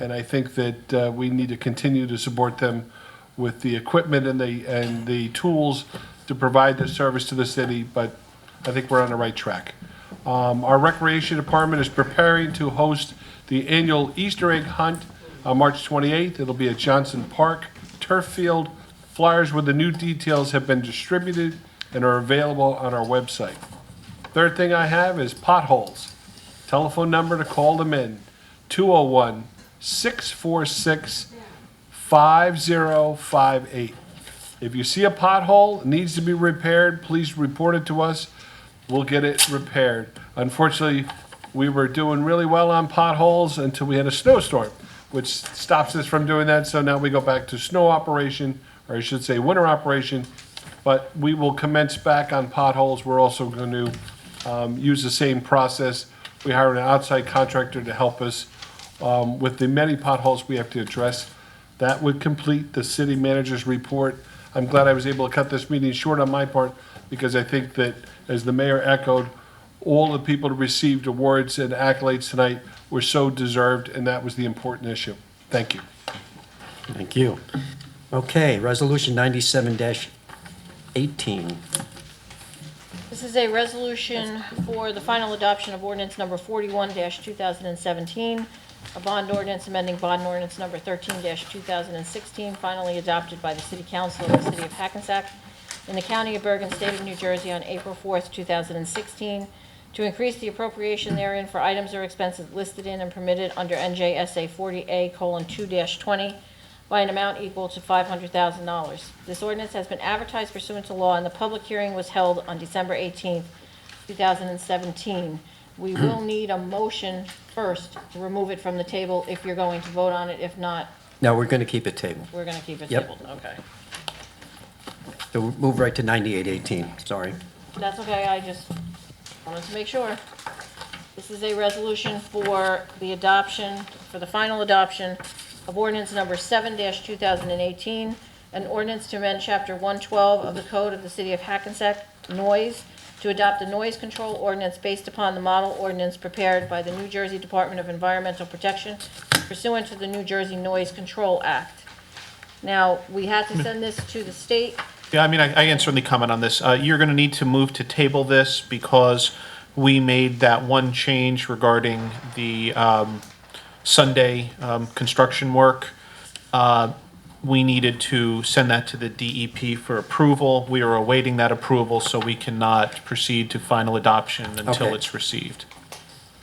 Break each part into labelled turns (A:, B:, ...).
A: And I think that uh, we need to continue to support them with the equipment and the, and the tools to provide the service to the city, but I think we're on the right track. Um, Our Recreation Department is preparing to host the annual Easter egg hunt on March 28th. It'll be at Johnson Park Turf Field. Flyers with the new details have been distributed and are available on our website. Third thing I have is potholes. Telephone number to call them in, 201 646 5058. If you see a pothole, it needs to be repaired, please report it to us. We'll get it repaired. Unfortunately, we were doing really well on potholes until we had a snowstorm, which stops us from doing that. So now we go back to snow operation, or I should say winter operation. But we will commence back on potholes. We're also going to um, use the same process. We hired an outside contractor to help us um, with the many potholes we have to address. That would complete the city manager's report. I'm glad I was able to cut this meeting short on my part because I think that, as the mayor echoed, all the people who received awards and accolades tonight were so deserved, and that was the important issue. Thank you.
B: Thank you. Okay, Resolution 97-18.
C: This is a resolution for the final adoption of ordinance number 41-2017, a bond ordinance amending bond ordinance number 13-2016, finally adopted by the City Council of the City of Hackensack in the County of Bergen, State of New Jersey on April 4th, 2016, to increase the appropriation therein for items or expenses listed in and permitted under NJSA 40A:2-20 by an amount equal to $500,000. This ordinance has been advertised pursuant to law, and the public hearing was held on December 18th, 2017. We will need a motion first to remove it from the table if you're going to vote on it. If not,
B: Now, we're going to keep it table.
C: we're going to keep it
B: Yep.
C: tabled. Okay.
B: So we'll Move right to 98-18, sorry.
C: That's okay, I just wanted to make sure. This is a resolution for the adoption, for the final adoption of ordinance number 7-2018, an ordinance to amend Chapter 112 of the Code of the City of Hackensack Noise to adopt a noise control ordinance based upon the model ordinance prepared by the New Jersey Department of Environmental Protection pursuant to the New Jersey Noise Control Act. Now, we had to
D: Mm.
C: send this to the state
D: Yeah, I mean, I, I can certainly comment on this. Uh, you're going to need to move to table this because we made that one change regarding the um, Sunday um, construction work. Uh, we needed to send that to the DEP for approval. We are awaiting that approval, so we cannot proceed to final adoption until
B: Okay.
D: it's received.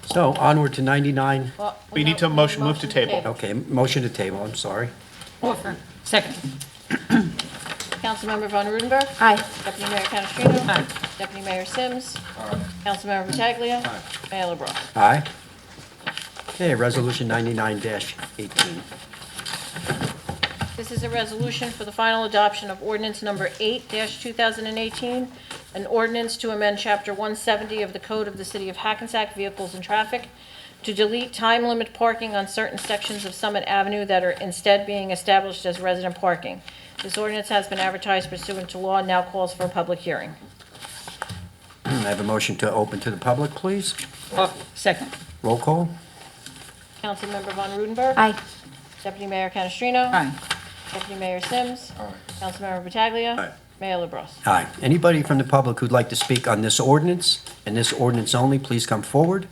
B: So onward to 99,
C: Well,
D: We need to
C: uh, no,
D: motion- move to table.
B: okay, motion to table, I'm sorry.
E: Offer. Second.
C: Councilmember Von Rudenberg.
E: Aye.
C: Deputy Mayor Canestrino.
E: Aye.
C: Deputy Mayor Sims. Councilmember Pataglia. Mayor LaBrus.
B: Aye. Okay, Resolution 99-18.
C: This is a resolution for the final adoption of ordinance number 8-2018, an ordinance to amend Chapter 170 of the Code of the City of Hackensack Vehicles and Traffic to delete time limit parking on certain sections of Summit Avenue that are instead being established as resident parking. This ordinance has been advertised pursuant to law and now calls for a public hearing.
B: Hmm, I have a motion to open to the public, please.
E: Offer. Oh, Second.
B: Roll call.
C: Councilmember Von Rudenberg.
E: Aye.
C: Deputy Mayor Canestrino.
E: Aye.
C: Deputy Mayor Sims. Councilmember Pataglia.
B: Aye.
C: Mayor LaBrus.
B: Aye. Anybody from the public who'd like to speak on this ordinance and this ordinance only, please come forward.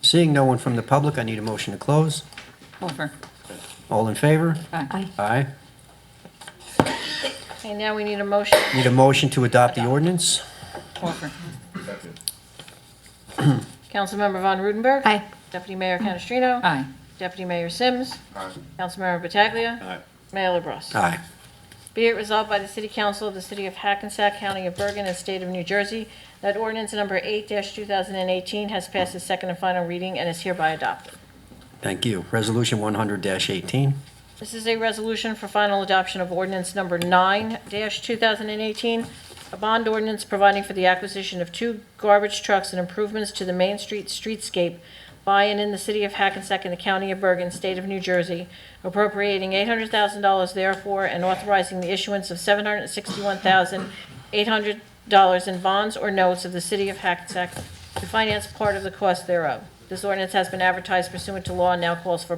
B: Seeing no one from the public, I need a motion to close.
E: Offer.
B: All in favor?
E: Aye.
B: Aye.
C: Okay, now we need a motion.
B: Need a motion to adopt the ordinance?
E: Offer.
C: Councilmember Von Rudenberg.
E: Aye.
C: Deputy Mayor Canestrino.
E: Aye.
C: Deputy Mayor Sims. Councilmember Pataglia. Mayor LaBrus.
B: Aye.
C: Be it resolved by the City Council of the City of Hackensack, County of Bergen, and State of New Jersey that ordinance number 8-2018 has passed its second and final reading and is hereby adopted.
B: Thank you. Resolution 100-18.
C: This is a resolution for final adoption of ordinance number 9-2018, a bond ordinance providing for the acquisition of two garbage trucks and improvements to the Main Street streetscape by and in the city of Hackensack and the county of Bergen, state of New Jersey, appropriating $800,000 therefore and authorizing the issuance of $761,800 in bonds or notes of the city of Hackensack to finance part of the cost thereof. This ordinance has been advertised pursuant to law and now calls for